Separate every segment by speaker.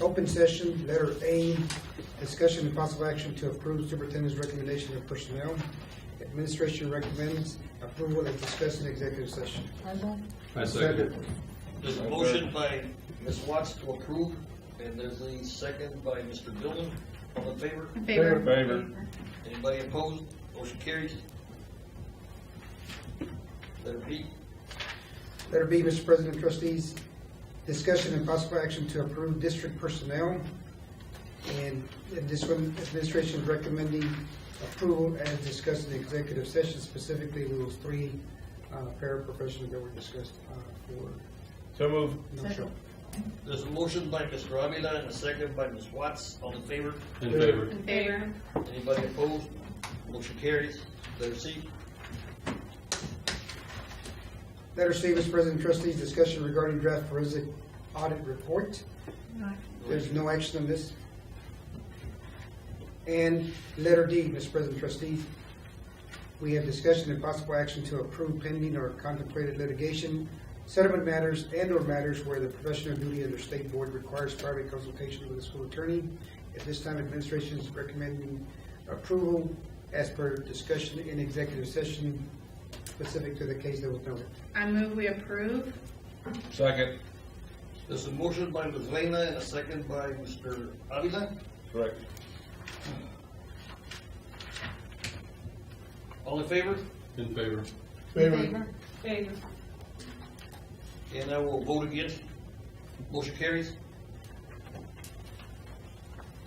Speaker 1: Open session, letter A, discussion and possible action to approve superintendent's recommendation of personnel. Administration recommends approval as discussed in executive session.
Speaker 2: I second.
Speaker 3: There's a motion by Ms. Watts to approve, and there's a second by Mr. Dillon. All in favor?
Speaker 4: In favor?
Speaker 2: Favor.
Speaker 3: Anybody opposed? Motion carries. Letter B,
Speaker 1: Letter B, Mr. President, trustees, discussion and possible action to approve district personnel. And in this one, administration is recommending approval as discussed in the executive session, specifically those three uh, paraprofessionals that were discussed uh, for.
Speaker 2: So move.
Speaker 1: no show.
Speaker 3: there's a motion by Mr. Avila and a second by Ms. Watts. All in favor?
Speaker 2: In favor.
Speaker 4: In favor?
Speaker 3: Anybody opposed? Motion carries. Letter C,
Speaker 1: Letter C, Mr. President, trustees, discussion regarding draft forensic audit report. There's no action on this. And letter D, Mr. President Trustee, we have discussion and possible action to approve pending or contemplated litigation, settlement matters and/or matters where the professional duty of the state board requires private consultation with the school attorney. At this time, administration is recommending approval as per discussion in executive session specific to the case that was noted.
Speaker 4: I move we approve.
Speaker 2: Second.
Speaker 3: there's a motion by Ms. Lena and a second by Mr. Avila.
Speaker 2: Correct.
Speaker 3: All in favor?
Speaker 2: In favor.
Speaker 4: Favor. Favor.
Speaker 3: And I will vote against. Motion carries.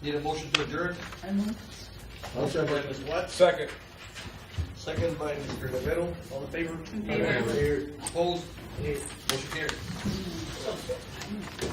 Speaker 3: Need a motion to adjourn? Motion by Ms. Watts,
Speaker 2: Second.
Speaker 3: second by Mr. Rivera. All in favor?
Speaker 4: In favor?
Speaker 3: Opposed? Motion carries.